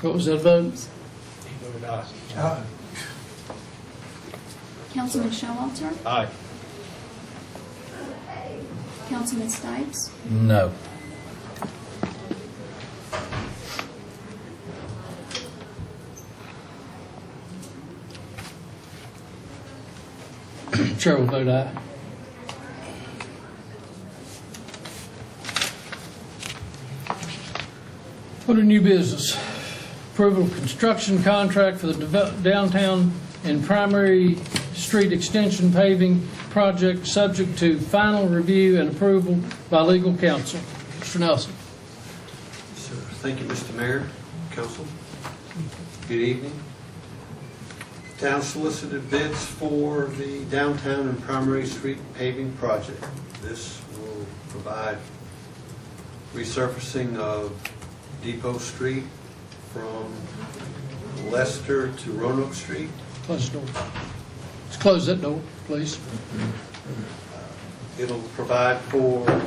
What was that vote? He voted aye. Aye. Councilman Showalter, Aye. Councilman Stipes, No. Chair will vote aye. Under new business, approval of construction contract for the devel- downtown and primary street extension paving project, subject to final review and approval by legal counsel. Mr. Nelson. Sir, Thank you, Mr. Mayor, council. Good evening. Town solicited bids for the downtown and primary street paving project. This will provide resurfacing of Depot Street from Lester to Roanoke Street. Close the door. Let's close that door, please. It'll provide for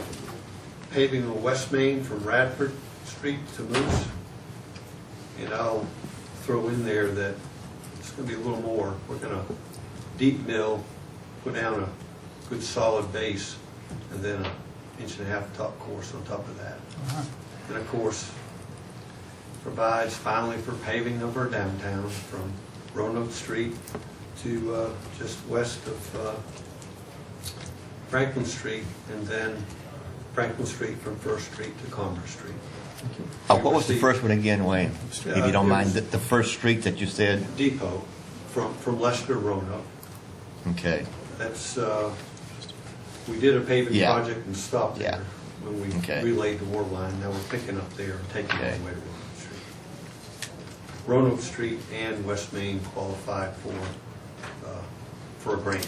paving of West Main from Radford Street to Moose. And I'll throw in there that it's gonna be a little more. We're gonna deep mill, put down a good solid base, and then an inch and a half top course on top of that. And of course, provides finally for paving of our downtown from Roanoke Street to uh, just west of uh, Franklin Street, and then Franklin Street from First Street to Commerce Street. Uh, What was the first one again, Wayne? If you don't mind, the the first street that you said? Depot from, from Lester to Roanoke. Okay, That's, uh, we did a paving Yeah. project and stopped Yeah. there when we Okay. relayed the war line. Now we're picking up there and taking it Okay. all the way to Roanoke Street. Roanoke Street and West Main qualified for, uh, for a grant.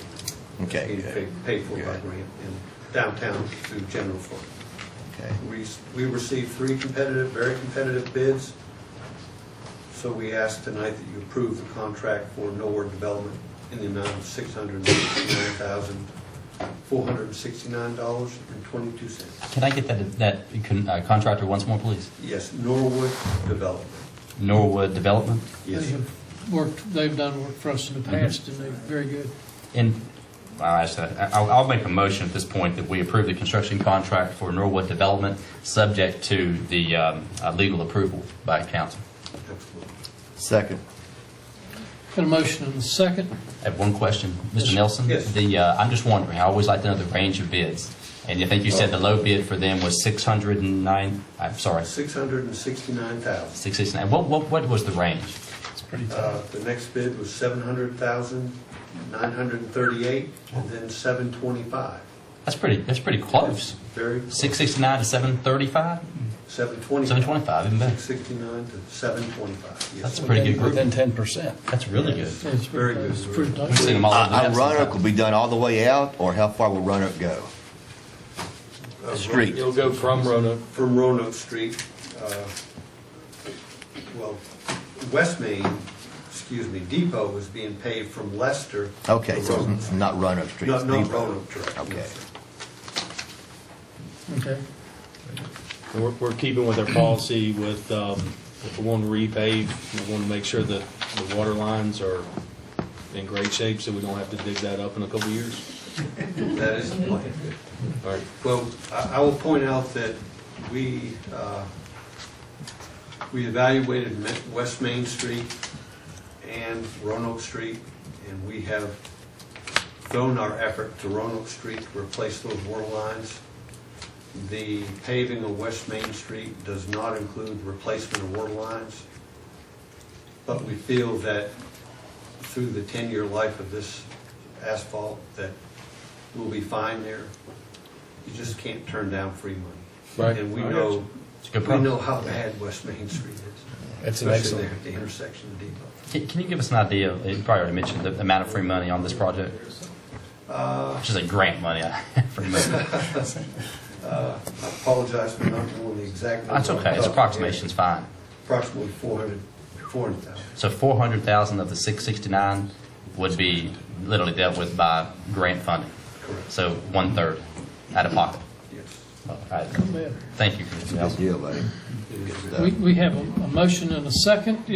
Okay, It's good. being Paid for by Good. grant in downtown through general fund. okay. We, we received three competitive, very competitive bids, so we ask tonight that you approve the contract for Norwood Development in the amount of six hundred and sixty-nine thousand, four hundred and sixty-nine dollars and twenty-two cents. Can I get that, that con- uh, contractor once more, please? Yes, Norwood Development. Norwood Development? They have worked, they've done work for us in the past, and they're very good. And, I'll, ask that- I'll, I'll make a motion at this point that we approve the construction contract for Norwood Development, subject to the um, uh, legal approval by council. Absolutely. Second. Got a motion and a second. I have one question. Mr. Nelson? Yes. The, uh, I'm just wondering, I always like to know the range of bids. And I think you said the low bid for them was 609, I'm sorry, Six hundred and sixty-nine thousand. 669. What, what, what was the range? Uh, the next bid was seven hundred thousand, nine hundred and thirty-eight, and then seven twenty-five. That's pretty, that's pretty close. Very, 669 to 735? seven twenty-five. 725, even better. 669 to 725, yes. That's sir. a pretty good group. ten percent. That's really good. It's Very good. It's pretty We've nice. seen them all. over the Uh, uh, depths Roanoke sometimes. will be done all the way out, or how far will Roanoke go? Uh, Street. It'll go from Roanoke. From Roanoke Street, uh, well, West Main, excuse me, Depot is being paved from Leicester. to Okay, so Roanoke. it's not Roanoke Street. Not it's not Depot. Roanoke Street. Okay. Okay. And We're, we're keeping with our policy with, um, if we want to repave, we want to make sure that the water lines are in great shape so we don't have to dig that up in a couple of years. That is the plan. All right. Well, I I will point out that we, uh, we evaluated Ma- West Main Street and Roanoke Street, and we have thrown our effort to Roanoke Street to replace those water lines. The paving of West Main Street does not include replacement of water lines, but we feel that through the 10-year life of this asphalt, that we'll be fine there. You just can't turn down free money. Right. And we I got know, you. It's a good we problem. know how bad West Main Street is. It's an Especially excellent- there at the intersection of Depot. Can, can you give us an idea? of- You probably already mentioned the amount of free money on this project, which is a grant money. free money. I apologize for not knowing the exact. That's number. okay. It's approximation's fine. Approximately 400, 400,000. So four hundred thousand of the six sixty nine would be literally dealt with by grant funding. Correct. So one third out of pocket. Yes. All right. Come in. Thank you, Commissioner Good Nelson. deal, buddy. didn't get it. We we have a a motion and a second.